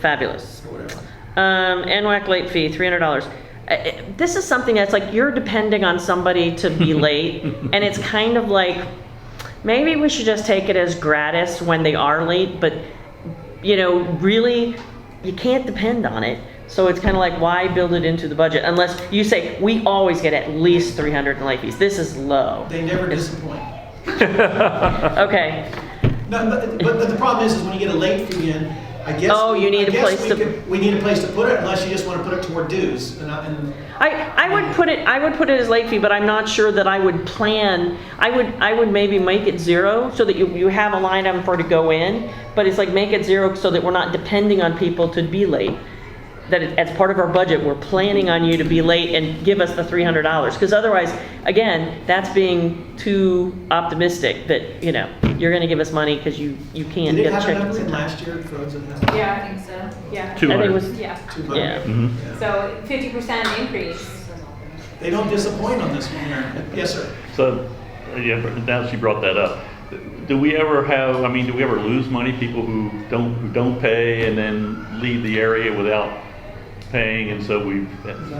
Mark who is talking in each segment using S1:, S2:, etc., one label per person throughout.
S1: Fabulous.
S2: or whatever.
S1: Um, NWAC late fee, three hundred dollars. Uh, This is something that's like, you're depending on somebody to be late, and it's kind of like, maybe we should just take it as gratis when they are late, but, you know, really, you can't depend on it. So it's kind of like, why build it into the budget unless you say, we always get at least three hundred in late fees. This is low.
S2: They never disappoint.
S1: Okay,
S2: No, but, but, but the problem is, is when you get a late fee in, I guess.
S1: Oh, you
S2: I
S1: need a
S2: guess
S1: place
S2: we
S1: to-
S2: could- We need a place to put it unless you just want to put it toward dues and, I- and
S1: I, I would put it, I would put it as late fee, but I'm not sure that I would plan, I would, I would maybe make it zero so that you, you have a line item for to go in, but it's like make it zero so that we're not depending on people to be late. That it- as part of our budget, we're planning on you to be late and give us the three hundred dollars, because otherwise, again, that's being too optimistic that, you know, you're gonna give us money because you, you can't
S2: did it
S1: get a
S2: have
S1: check.
S2: enough in last year for those that have
S3: Yeah, I think so, yeah.
S1: I think it
S4: 200.
S1: was,
S3: Yeah,
S2: two
S1: Yeah.
S2: hundred?
S4: Mhm.
S2: Yeah.
S3: so fifty percent increase.
S2: They don't disappoint on this one, Aaron. Yes, sir.
S4: So, yeah, but now that you brought that up, do we ever have, I mean, do we ever lose money, people who don't, who don't pay and then leave the area without paying, and so we,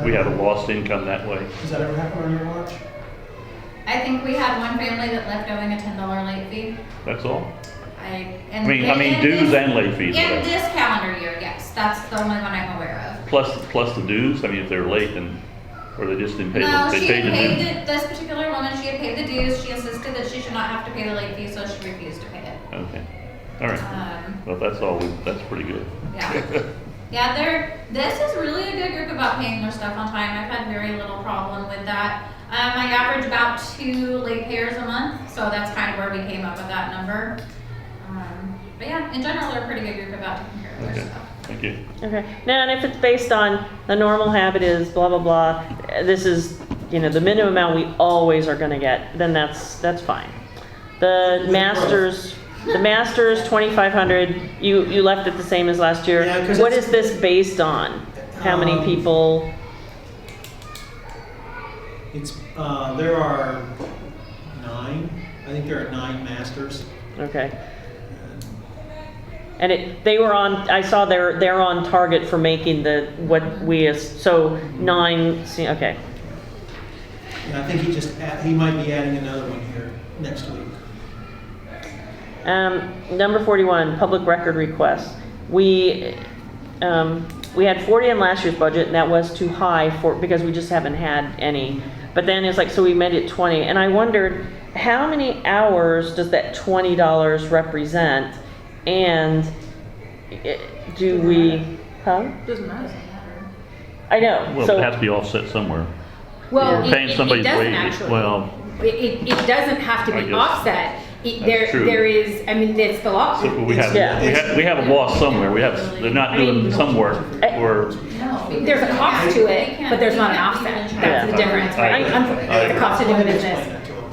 S4: we have a lost income that way?
S2: Does that ever happen on your watch?
S5: I think we had one family that left owing a ten dollar late fee.
S4: That's all?
S5: I,
S4: I
S5: and.
S4: mean, I mean
S5: in
S4: dues
S5: this-
S4: and late
S5: In
S4: fees, right?
S5: this calendar year, yes, that's the only one I'm aware
S4: plus, plus the dues, I mean, if they're late and, or they just didn't
S5: of.
S4: pay,
S5: No,
S4: the-
S5: she
S4: they paid
S5: had
S4: the
S5: paid,
S4: dues.
S5: the- this particular woman, she had paid the dues, she insisted that she should not have to pay the late fee, so she refused to pay it.
S4: Okay, all right,
S5: Um,
S4: well, that's all, we- that's pretty good.
S5: yeah. Yeah, they're, this is really a good group about paying their stuff on time, I've had very little problem with that. Um, I average about two late payers a month, so that's kind of where we came up with that number. Um, But yeah, in general, they're a pretty good group about taking care of their
S4: Okay,
S5: stuff.
S4: thank you.
S1: Okay, now, and if it's based on the normal habit is blah, blah, blah, uh, this is, you know, the minimum amount we always are gonna get, then that's, that's fine. The masters, the masters, twenty-five hundred, you, you left it the same as last year.
S2: Yeah, 'cause
S1: What
S2: it's-
S1: is this based on? How many
S2: Um,
S1: people?
S2: It's, uh, there are nine, I think there are nine masters.
S1: Okay. And it, they were on, I saw they're, they're on target for making the, what we, as- so nine, see, okay,
S2: And I think he just, add- he might be adding another one here next week.
S1: Um, number forty-one, public record requests. We, um, we had forty in last year's budget, and that was too high for, because we just haven't had any. But then it's like, so we made it twenty, and I wondered, how many hours does that twenty dollars represent? And eh, do we, huh?
S3: Doesn't matter.
S1: I know,
S4: Well, it
S1: so,
S4: has to be offset somewhere.
S6: Well,
S4: We're
S6: it-
S4: paying
S6: it- it
S4: somebody's
S6: doesn't
S4: wages.
S6: actually.
S4: Well-
S6: It, it, it doesn't have to
S4: I
S6: be
S4: guess.
S6: offset. It-
S4: That's
S6: There,
S4: true.
S6: there is, I mean, that's the law.
S4: So we have, we
S1: Yeah.
S4: have, we have a loss somewhere, we have, they're not doing some work,
S1: Eh,
S4: or,
S5: No.
S6: There's a cost to it, but there's not an offset. That's the
S1: Yeah.
S6: difference,
S4: I-
S6: right? Um,
S4: I-
S6: The cost of
S2: Go
S6: doing
S2: ahead and
S6: business.
S2: explain that to him.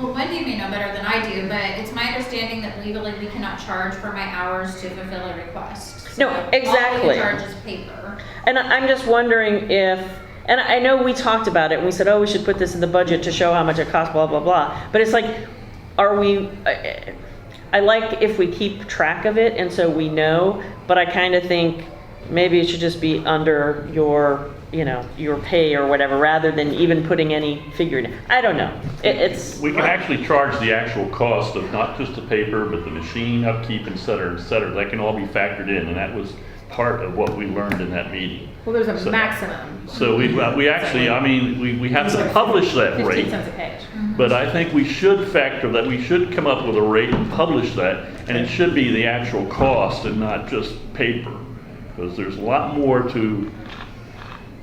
S5: Well, Wendy may know better than I do, but it's my understanding that legally we cannot charge for my hours to fulfill a request.
S1: No,
S5: So All we
S1: exactly.
S5: can charge is paper.
S1: and I- I'm just wondering if, and I know we talked about it, and we said, oh, we should put this in the budget to show how much it costs, blah, blah, blah. But it's like, are we, I- I like if we keep track of it and so we know, but I kind of think maybe it should just be under your, you know, your pay or whatever, rather than even putting any figure in. I don't know. It- It's,
S4: we can actually charge the actual cost of not just the paper, but the machine upkeep, et cetera, et cetera, that can all be factored in, and that was part of what we learned in that meeting.
S6: Well, there's
S4: So-
S6: a maximum,
S4: So we, we actually, I mean, we, we have to publish that rate.
S6: fifteen cents a page.
S4: But I think we should factor that, we should come up with a rate and publish that, and it should be the actual cost and not just paper. Because there's a lot more to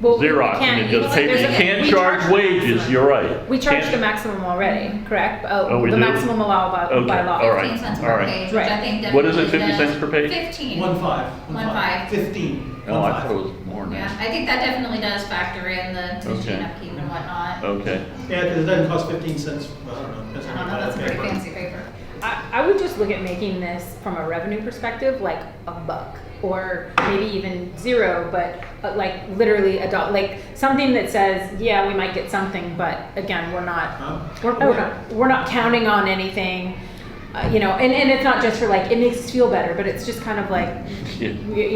S6: Well, we- we
S4: Xerox
S6: can't-
S4: than just
S6: we-
S4: paper.
S6: there's
S4: You
S6: a-
S4: can't
S6: we
S4: charge wages, you're right.
S6: We charge
S4: Can't-
S6: the maximum already, correct?
S4: Oh, we
S6: The
S4: do?
S6: maximum allowed by, by
S4: Okay, all
S6: law.
S4: right.
S5: Fifteen cents
S4: all
S5: per
S4: right.
S5: page, which I
S6: Right.
S5: think
S4: What is it,
S5: definitely
S4: 50
S5: does-
S4: cents per page?
S5: Fifteen.
S2: One five.
S5: One five.
S2: Fifteen.
S4: Oh, I thought it was more than
S5: Yeah,
S4: that.
S5: I think that definitely does factor in the machine
S4: Okay. Oh.
S5: upkeep and whatnot.
S4: Okay.
S2: Yeah, because it doesn't cost fifteen cents, well, I don't know. depends
S5: I
S2: on
S5: don't know,
S2: how
S5: that's
S2: much
S5: pretty
S2: paper.
S5: fancy paper.
S6: I, I would just look at making this from a revenue perspective, like a buck, or maybe even zero, but, but like literally a dollar, like something that says, yeah, we might get something, but again, we're not,
S2: Huh?
S6: we're, we're
S5: Oh,
S6: not, we're not counting on anything, uh, you know, and, and it's not just for like, it makes us feel better, but it's just kind of like,
S4: Yeah.
S6: you,